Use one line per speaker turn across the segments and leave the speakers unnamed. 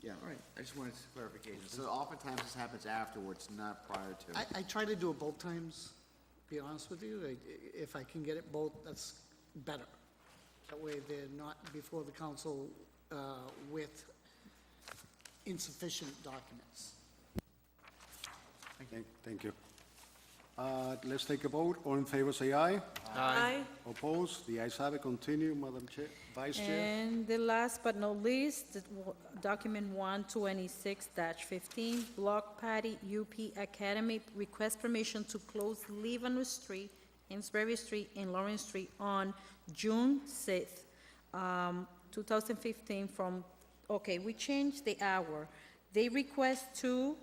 Yeah, all right, I just wanted clarification. So
Mm-hmm.
oftentimes this happens afterwards, not prior to.
I, I try to do it both times, to be honest with you. I- If I can get it both, that's better. That way they're not before the council uh, with insufficient documents.
Thank- Thank you. Uh, Let's take a vote. All in favor, say aye.
Aye.
Opposed? The ayes have it. Continue, Madam Chair, Vice Chair.
And the last but not least, the w- document one twenty-six fifteen, Block Patty UP Academy, request permission to close Leavenworth Street, Amesbury Street, and Lawrence Street on June sixth, um, two thousand fifteen from, okay, we changed the hour. They request two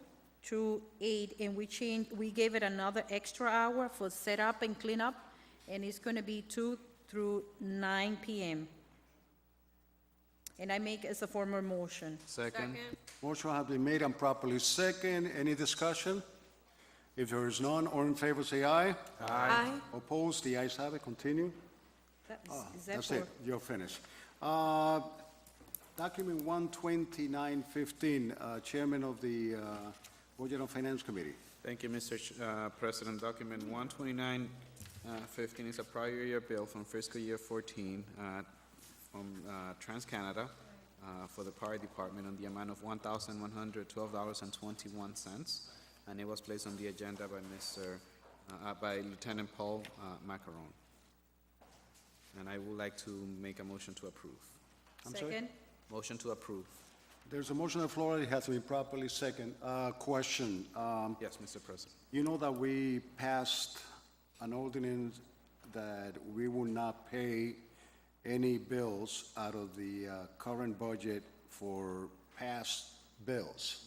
to eight, and we changed, we gave it another extra hour for setup and cleanup, and it's gonna be two through nine PM. And I make as a former motion.
Second.
Motion has been made and properly second. Any discussion? If there is none, all in favor, say aye.
Aye.
Opposed? The ayes have it. Continue.
Is that
Ah, That's
for?
it. You're finished. Uh, Document 12915, uh, Chairman of the uh, Budget and Finance Committee.
Thank you, Mr. Ch- uh, President. Document 129, uh, 15 is a prior year bill from fiscal year 14 uh, from uh, TransCanada uh, for the Power Department on the amount of $1,112.21, and it was placed on the agenda by Mr., uh, uh, by Lieutenant Paul uh, Macaron. And I would like to make a motion to approve.
I'm sorry?
Second?
Motion to approve.
There's a motion on the floor. It has been properly second. Uh, Question. um,
Yes, Mr. President.
You know that we passed an ordinance that we will not pay any bills out of the uh, current budget for past bills.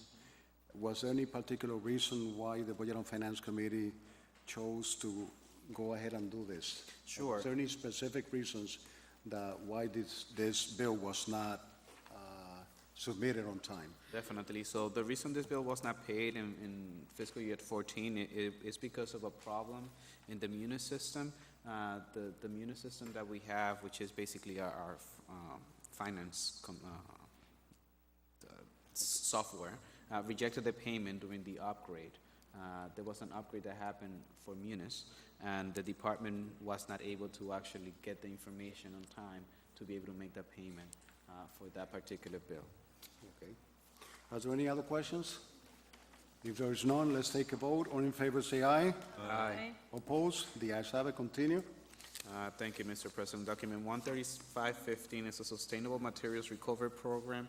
Was there any particular reason why the Budget and Finance Committee chose to go ahead and do this?
Sure.
Was there any specific reasons that why this, this bill was not uh, submitted on time?
Definitely. So the reason this bill was not paid in, in fiscal year fourteen i- i- is because of a problem in the munis system. Uh, the, the munis system that we have, which is basically our, our, um, finance com, uh, s- software uh, rejected the payment during the upgrade. Uh, There was an upgrade that happened for Munis, and the department was not able to actually get the information on time to be able to make that payment uh, for that particular bill.
Okay. Are there any other questions? If there is none, let's take a vote. All in favor, say aye.
Aye.
Opposed? The ayes have it. Continue.
Uh, Thank you, Mr. President. Document 13515 is a Sustainable Materials Recovery Program,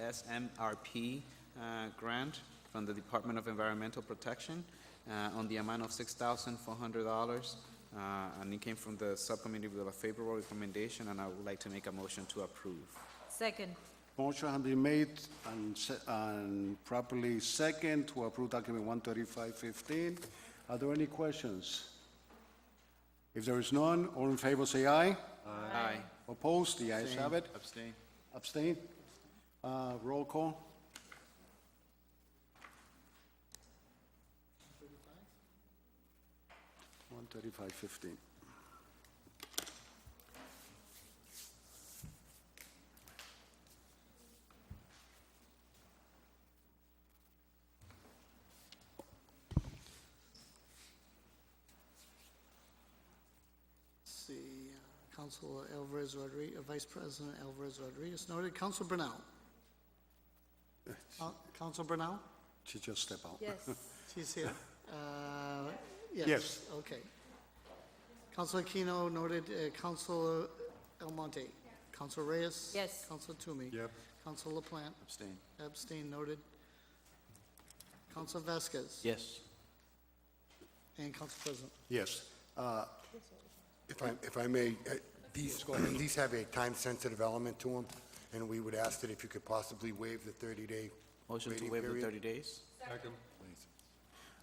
SMRP uh, grant from the Department of Environmental Protection uh, on the amount of $6,400. uh, And it came from the subcommittee with a favorable recommendation, and I would like to make a motion to approve.
Second?
Motion has been made and se- and properly second to approve document 13515. Are there any questions? If there is none, all in favor, say aye.
Aye.
Opposed? The ayes have it.
Abstain.
Abstain? Uh, Roll call. One thirty-five fifteen.
See, uh, Council Alvarez Rodriguez, Vice President Alvarez Rodriguez noted, Council Brunel. Coun- Council Brunel?
She just stepped out.
Yes.
She's here. Uh, Yes,
Yes.
okay. Council Aquino noted, uh, Council Almonte. Council Reyes.
Yes.
Council Toomey.
Yep.
Council LaPlante.
Abstain.
Abstain noted. Council Vasquez.
Yes.
And Council President.
Yes. Uh,
If I, if I may, uh, these, these have a time-sensitive element to them, and we would ask that if you could possibly waive the 30-day
Motion to
waiting
waive the
period.
30 days?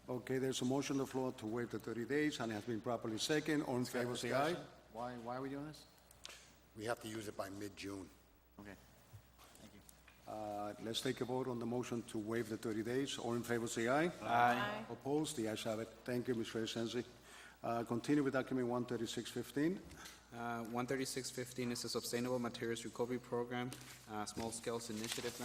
Okay, there's a motion on the floor to waive the thirty days, and it has been properly second. All in favor, say aye.
Why, why are we doing this?
We have to use it by mid-June.
Okay.
Uh, Let's take a vote on the motion to waive the thirty days. All in favor, say aye.
Aye.
Opposed? The ayes have it. Thank you, Ms. Reyes-Sensi. Uh, Continue with document 13615.
Uh, 13615 is a Sustainable Materials Recovery Program, uh, Small Scales Initiative